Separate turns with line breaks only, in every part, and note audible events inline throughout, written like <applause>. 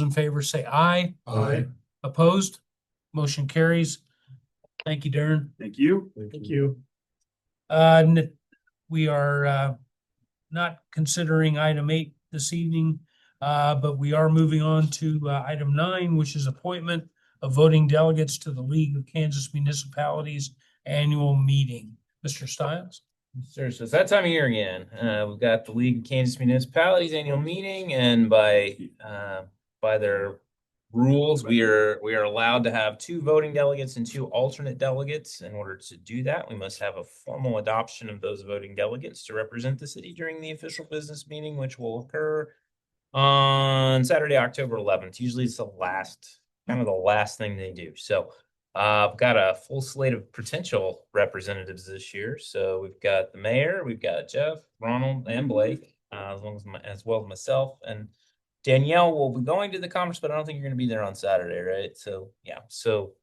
in favor, say aye.
Aye.
Opposed? Motion carries. Thank you, Darren.
Thank you.
Thank you.
Uh, n- we are, uh, not considering item eight this evening, uh, but we are moving on to, uh, item nine, which is appointment of voting delegates to the League of Kansas Municipalities Annual Meeting. Mr. Stiles?
Sure, so it's that time of year again. Uh, we've got the League of Kansas Municipalities annual meeting and by, uh, by their rules, we are, we are allowed to have two voting delegates and two alternate delegates. In order to do that, we must have a formal adoption of those voting delegates to represent the city during the official business meeting, which will occur on Saturday, October eleventh. Usually it's the last, kind of the last thing they do. So uh, I've got a full slate of potential representatives this year. So we've got the mayor, we've got Jeff, Ronald, and Blake, uh, as long as my, as well as myself and Danielle will be going to the conference, but I don't think you're going to be there on Saturday, right? So yeah, so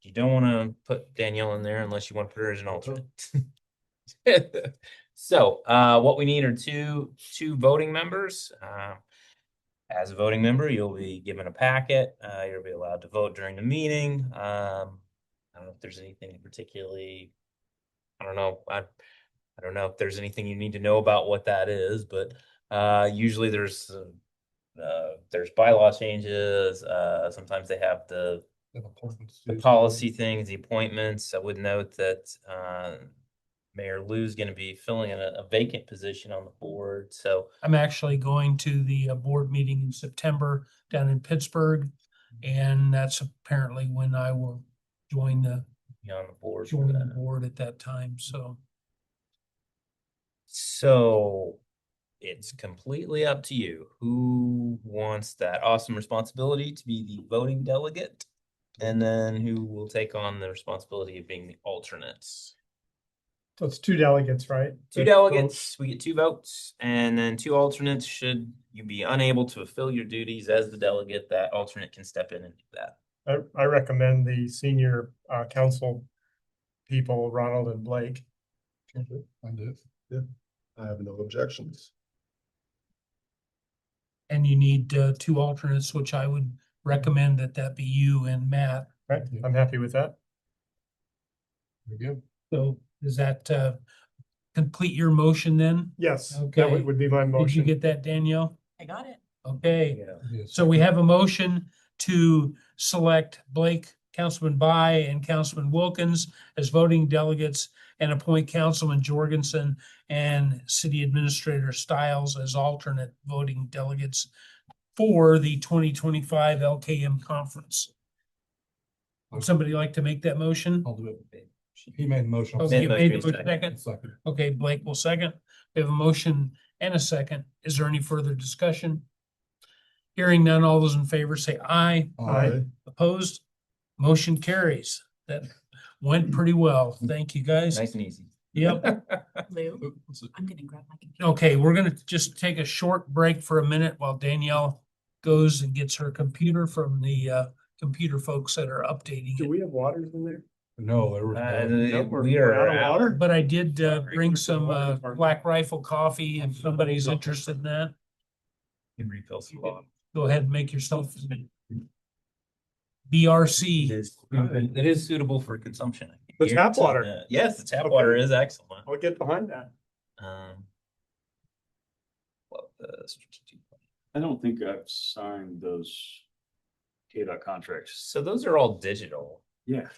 you don't want to put Danielle in there unless you want to put her as an alternate. <laughs> so uh, what we need are two two voting members. Uh, as a voting member, you'll be given a packet. Uh, you'll be allowed to vote during the meeting. Um, I don't know if there's anything particularly, I don't know, I, I don't know if there's anything you need to know about what that is, but, uh, usually there's, uh, uh, there's bylaw changes, uh, sometimes they have the, the policy things, the appointments. I would note that, uh, Mayor Lou's gonna be filling in a a vacant position on the board, so,
I'm actually going to the uh, board meeting in September down in Pittsburgh. And that's apparently when I will join the,
be on the board. for
join the
that.
board at that time, so.
So it's completely up to you. Who wants that awesome responsibility to be the voting delegate? And then who will take on the responsibility of being the alternates?
So it's two delegates, right?
Two
That's both.
delegates, we get two votes, and then two alternates. Should you be unable to fulfill your duties as the delegate, that alternate can step in and do that.
I, I recommend the senior, uh, council people, Ronald and Blake.
I do. Yeah, I have no objections.
And you need, uh, two alternates, which I would recommend that that be you and Matt.
Right, I'm happy with that.
Very good.
So does that uh complete your motion then?
Yes, that
Okay.
would would be my
Did you
motion.
get that, Danielle?
I got it.
Okay,
Yeah.
so we have a motion to select Blake, Councilman By and Councilman Wilkins as voting delegates and appoint Councilman Jorgensen and City Administrator Stiles as alternate voting delegates for the twenty twenty-five LKM conference. Would somebody like to make that motion?
I'll do it. He made a motion.
Okay, Oh, you
Made
made
motion,
the motion,
second.
second.
Second.
Okay, Blake will second. We have a motion and a second. Is there any further discussion? Hearing none, all those in favor say aye.
Aye.
Opposed? Motion carries. That went pretty well. Thank you, guys.
Nice and easy.
Yep.
<laughs> Lou, I'm gonna grab my computer.
Okay, we're gonna just take a short break for a minute while Danielle goes and gets her computer from the uh computer folks that are updating
Do
it.
we have waters in there?
No, there was.
Uh,
no-
the-
we're-
we
we're out
are
of
out.
water?
But I did uh
Sorry.
bring some uh Black Rifle coffee if somebody's interested in that.
You can refill some bottles.
Go ahead and make yourself BRC.
It is- it is suitable for consumption. I can
The tap
guarantee
water.
that. Yes, the tap water is excellent.
I'll get behind that.
Um. love the strategic plan.
I don't think I've signed those KDOT contracts.
So those are all digital.
Yeah,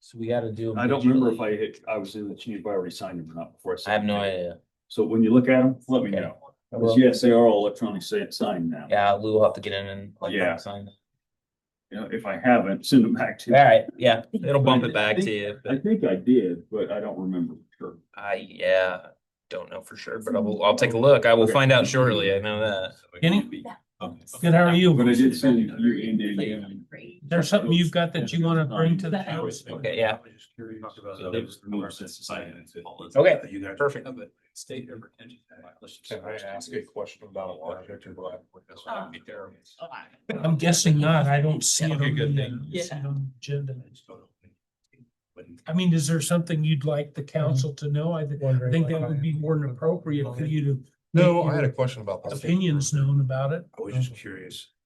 So we gotta do. them
I don't remember if I
digitally.
hit, I was in the chain, if I already signed them or not before.
I have no idea.
So when you look at them, let me
Okay.
know.
I
'Cause
will.
Yes, they are all electronic sa- signed now.
Yeah, Lou will have to get in and. like,
Yeah.
sign it.
You know, if I haven't, send them back to.
All
you.
right, yeah, it'll bump
I
it back to
think-
you,
I
but
think I did, but I don't remember for sure.
I, yeah, don't know for sure, but I will, I'll take a look. I will
Okay.
find out shortly. I know that.
Kenny?
Okay.
Good, how are you?
But I
Is
did send you and Dan.
Great.
there something you've got that you want to bring to the
That I
house?
was-
Okay, yeah.
So they've removed since deciding to-
Okay,
You guys.
perfect.
State your retention. Let's just-
Can I ask a question about a project or what?
Uh, Oh, I-
I'm guessing not. I don't see it
Okay,
on
good
the,
thing.
uh, see it
Yeah.
on the agenda. I mean, is there something you'd like the
Mm-hmm.
council to know? I th- I think that would be more than appropriate for you to
No, I had a question about.
make
that.
opinions known about it.
I was just curious.